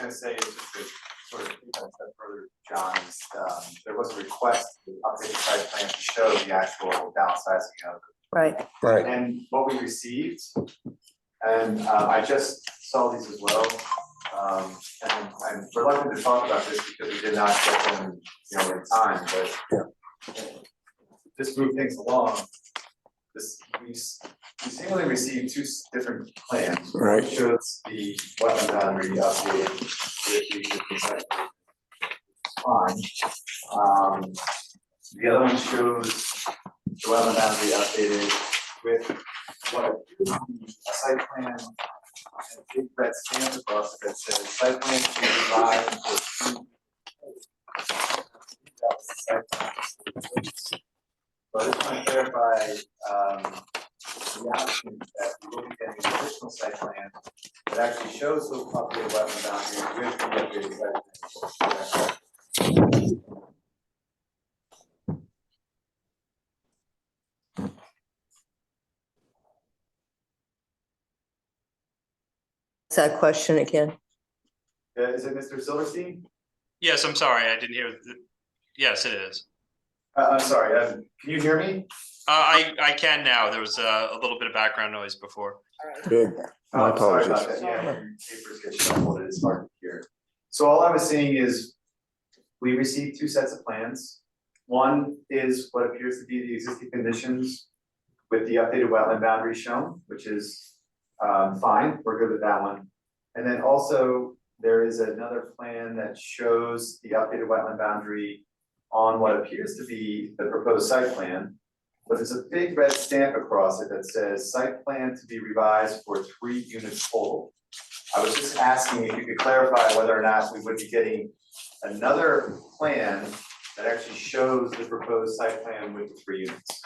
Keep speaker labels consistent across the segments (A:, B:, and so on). A: gonna say, is just to sort of take that a step further, John, is, um, there was a request, to update the site plan to show the actual downsizing of
B: Right,
C: Right,
A: And what we received, and uh, I just saw these as well. Um, and I'm reluctant to talk about this because we did not get them, you know, in time, but just move things along. This, we s- we seemingly received two s- different plans.
C: Right.
A: Shows the wetland boundary updated with the existing site. Fine. Um, the other one shows the wetland boundary updated with what appears to be a site plan. And big red stamp across it that says site plan to be revised for. But I just want to clarify, um, the option that we will be getting an additional site plan that actually shows the updated wetland boundary with the updated site. plan.
B: it's that question again.
A: Uh, Is it Mr. Silverstein?
D: Yes, I'm sorry, I didn't hear. the- Yes, it is.
A: Uh, I'm sorry, uh, can you hear me?
D: Uh, I, I can now. There was uh, a little bit of background noise before.
C: good. My
A: Oh, sorry about
C: apologies.
A: that. Yeah, your papers get shuffled, it's hard to hear. So all I was saying is, we received two sets of plans. One is what appears to be the existing conditions with the updated wetland boundary shown, which is, um, fine, we're good with that one. And then also, there is another plan that shows the updated wetland boundary on what appears to be the proposed site plan. But there's a big red stamp across it that says site plan to be revised for three units total. I was just asking if you could clarify whether or not we would be getting another plan that actually shows the proposed site plan with the three units.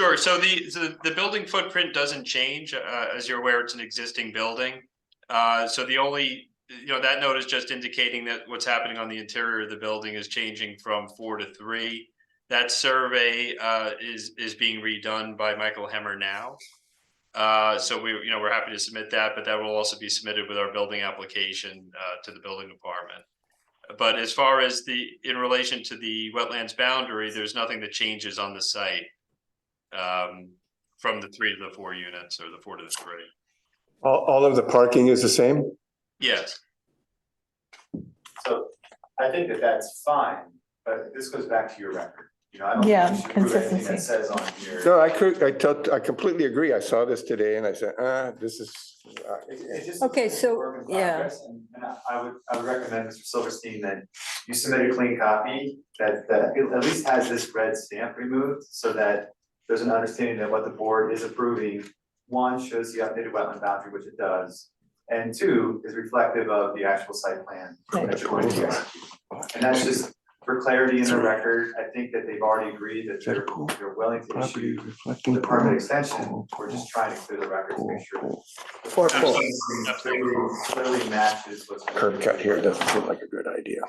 D: Sure, so the, so the building footprint doesn't change. Uh, as you're aware, it's an existing building. Uh, so the only, you know, that note is just indicating that what's happening on the interior of the building is changing from four to three. That survey, uh, is, is being redone by Michael Hemmer now. Uh, so we, you know, we're happy to submit that, but that will also be submitted with our building application, uh, to the building department. But as far as the, in relation to the wetlands boundary, there's nothing that changes on the site um, from the three to the four units or the four to the three.
C: All, all of the parking is the same?
D: Yes,
A: So I think that that's fine, but this goes back to your record, you know, I don't
E: Yeah,
A: think we should prove anything that
E: consistency.
A: says on here.
C: No, I could, I tot- I completely agree. I saw this today and I said, ah, this is, uh,
A: It's, it's just.
B: Okay,
A: it's a
B: so,
A: work in
B: yeah.
A: progress, And and I, I would, I would recommend, Mr. Silverstein, that you submit a clean copy that, that it at least has this red stamp removed so that there's an understanding that what the board is approving, one, shows the updated wetland boundary, which it does, and two, is reflective of the actual site plan that you're going to execute. And that's just for clarity in the record, I think that they've already agreed that they're, they're willing to issue the permit extension. We're just trying to clear the record to make sure that
B: Four
D: Cool.
B: pools.
A: Clearly clearly matches what's.
C: curb cut here doesn't seem like a good idea.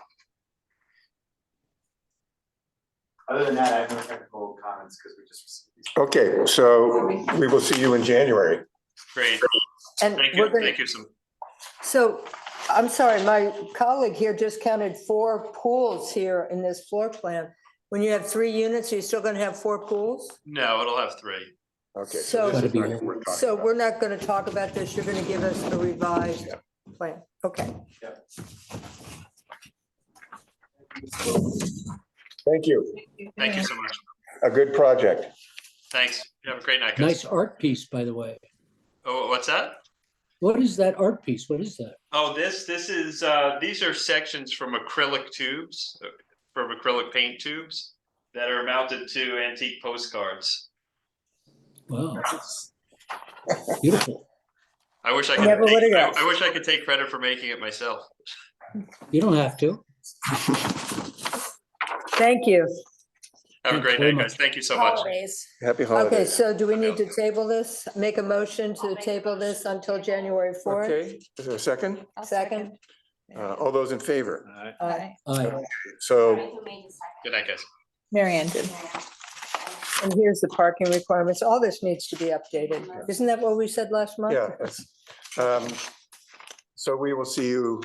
A: Other than that, I have no technical comments because we just received these.
C: Okay, so we will see you in January.
D: great.
B: And
D: Thank
B: we're
D: you,
B: gonna,
D: thank you some.
B: so, I'm sorry, my colleague here just counted four pools here in this floor plan. When you have three units, are you still gonna have four pools?
D: No, it'll have three.
C: Okay.
B: So-
C: this is not what we're talking
B: So
C: about.
B: we're not gonna talk about this, you're gonna give us the revised plan, okay.
C: Thank you.
D: Thank you so much.
C: A good project.
D: Thanks. You Have a great night, guys.
F: Nice art piece, by the way.
D: Oh, what's that?
F: What is that art piece? What is that?
D: Oh, this, this is, uh, these are sections from acrylic tubes, uh, from acrylic paint tubes that are mounted to antique postcards.
F: Wow. Beautiful.
D: I wish I could,
B: Never would've
D: take- I
B: guessed.
D: I wish I could take credit for making it myself.
F: You don't have to.
B: Thank you.
D: Have a
F: Thanks
D: great
F: very
D: night,
F: much.
D: guys. Thank you so much.
B: Okay,
C: Happy holidays.
B: so do we need to table this? Make a motion to table this until January fourth,
C: Okay, is there a second?
E: I'll
B: second?
C: Uh, all those in favor?
B: Aye.
F: Aye.
C: So
D: Good night, guys.
E: Marion,
B: And here's the parking requirements. All this needs to be updated. Isn't that what we said last month?
C: Yeah. that's- um, So we will see you